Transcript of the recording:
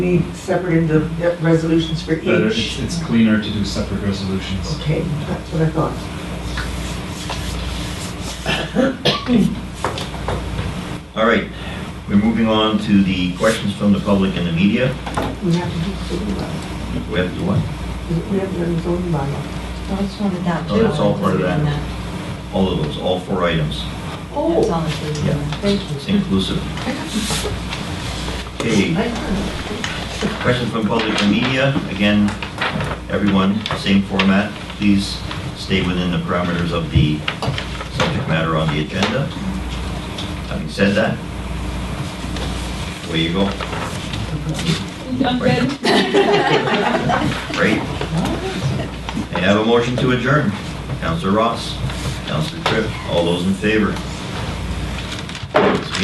be separate into resolutions for But it's, each? it's cleaner to do separate resolutions. Okay, that's what I thought. All right, we're moving on to the questions from the public and the media. We have to do zoning bylaw. We have to do what? We have to do zoning bylaw. That's one of that. Oh, that's all part of that. All of those, all four items, That's Oh, all included in Yeah. that. thank you. inclusive. Okay, questions from public and media. Again, everyone, same format. Please stay within the parameters of the subject matter on the agenda. Having said that, away you go. I'm good. Great. May I have a motion to adjourn? Counselor Ross, Counselor Tripp, all those in favor?